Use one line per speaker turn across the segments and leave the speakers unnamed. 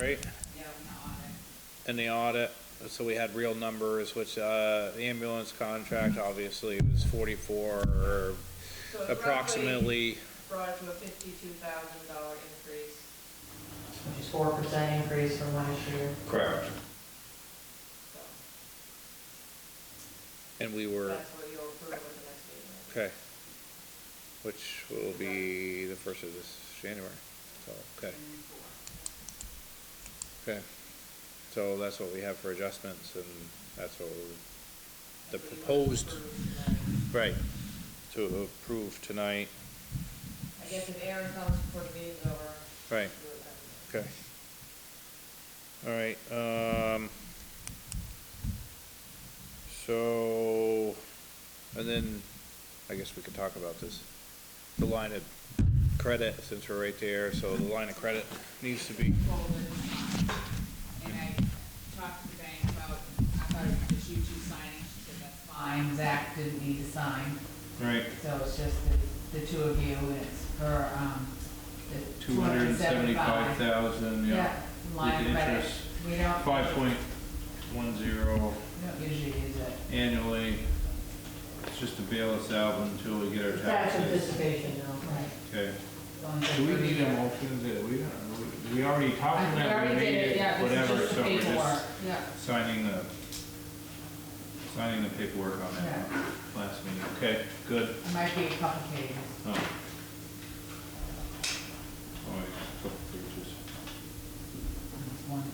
right? And the audit, so we had real numbers, which, uh, the ambulance contract obviously was forty-four or
So it roughly
approximately,
Brought it to a fifty-two thousand dollar increase.
Which is four percent increase from last year.
Correct.
So
and we were,
that's what you'll approve at the next meeting.
okay. Which will be the first of this January, so, okay. Okay, so that's what we have for adjustments and that's what we- the
That's what you want to
proposed,
approve tonight.
right, to approve tonight,
I guess if Aaron comes before the meeting's over.
right.
we'll do it
Okay. All right, um, so, and then, I guess we could talk about this. The line of credit, since we're right there, so the line of credit needs to be,
be folded, and I talked to the bank about, I thought it was just you two signing, she said that's fine, Zach didn't need to sign,
Right.
so it's just the, the two of you, and it's for, um, the two hundred and seventy-five.
thousand,
Yeah, line
With
of credit,
interest.
we don't,
Five point one zero
we don't usually use it.
annually. It's just to bail us out until we get our
Tax
taxes.
anticipation now.
Right.
Okay.
It's only
Do we
for
need a
year.
motion that we, don't- we already
I-
talked about,
already
we
did
needed,
yeah, this is
whatever,
just the
so we're
paperwork,
just
Yeah,
signing the, signing the paperwork on that last meeting. Okay, good.
it might be complicated.
Oh. Oh, wait, a couple pages.
It's one-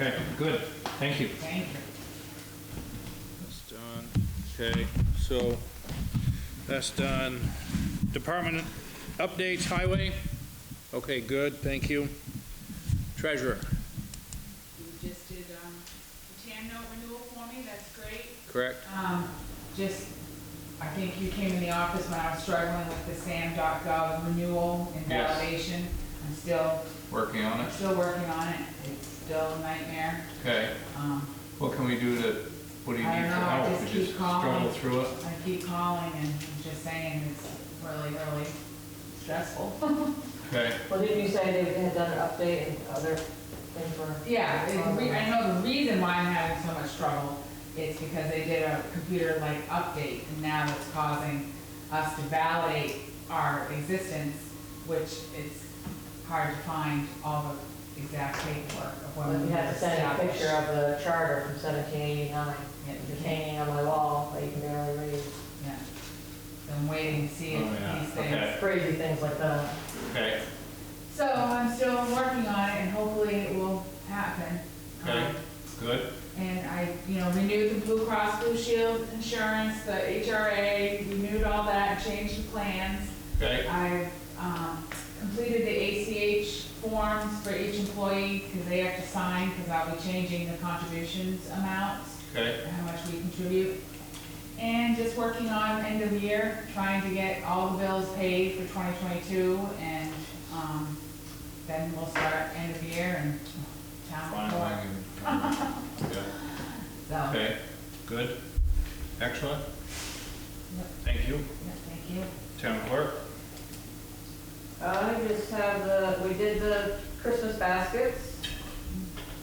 Okay, good, thank you.
Thank you.
that's done, okay, so, that's done. Department updates, highway, okay, good, thank you. Treasurer,
You just did, um, the TAM note renewal for me, that's great.
correct?
Um, just, I think you came in the office when I was struggling with the SAM.gov renewal and
Yes.
validation. I'm still,
Working on
I'm
it,
still working on it. It's still a nightmare.
okay.
Um,
What can we do to, what do you
I
need
don't
for
know, I
help?
just
We
keep
just struggle
calling.
through it?
I keep calling and I'm just saying it's really, really stressful.
Okay,
Well, didn't you say they had done an update and other things were?
Yeah, it- we- I know the reason why I'm having so much trouble is because they did a computer like update and now it's causing us to validate our existence, which it's hard to find all the exact paperwork of what
Well,
we
you
have
had to send a
established.
picture of the charter from seventeen eighty-nine,
Yeah.
just hanging on my wall, that you can barely read.
Yeah. So I'm waiting to see
Oh, yeah,
if these
okay.
things.
Crazy things like that.
okay,
So I'm still working on it and hopefully it will happen.
Okay.
Um,
good,
And I, you know, renewed the Blue Cross Blue Shield insurance, the HRA, renewed all that, changed the plans.
okay,
I've um, completed the ACH forms for each employee, because they have to sign, because I'll be changing the contributions amounts,
okay,
and how much we contribute. And just working on end of year, trying to get all the bills paid for 2022, and um, then we'll start end of year and town
finally.
report.
Yeah.
So,
Okay, good, excellent.
Yep.
Thank you,
yeah, thank you.
town clerk.
Uh, I just have the, we did the Christmas baskets,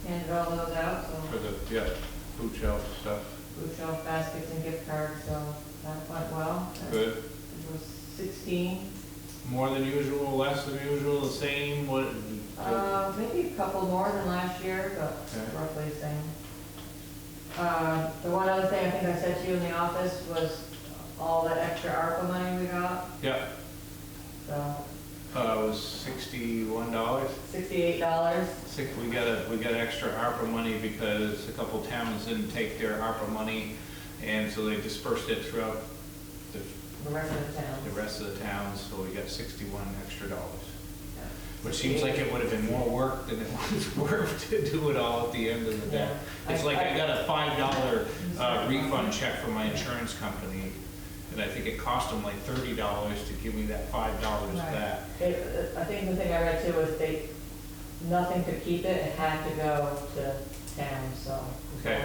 handed all those out,
For
so
the, yeah, food shelf stuff,
bookshelf baskets and gift cards, so that went well.
good.
It was sixteen.
More than usual, less than usual, the same, what?
Uh, maybe a couple more than last year, but
Okay.
roughly the same. Uh, the one other thing I think I said to you in the office was all the extra ARPA money we got,
Yeah,
so
uh, it was sixty-one dollars.
sixty-eight dollars.
Six, we got a, we got extra ARPA money because a couple towns didn't take their ARPA money, and so they dispersed it throughout the,
The rest of the town.
the rest of the towns, so we got sixty-one extra dollars. Which seems like it would have been more work than it was worth to do it all at the end of the day. It's like I got a five dollar uh, refund check from my insurance company, and I think it cost them like thirty dollars to give me that five dollars
Right.
back.
It, I think the thing I read too was they, nothing could keep it, it had to go to town, so.
Okay.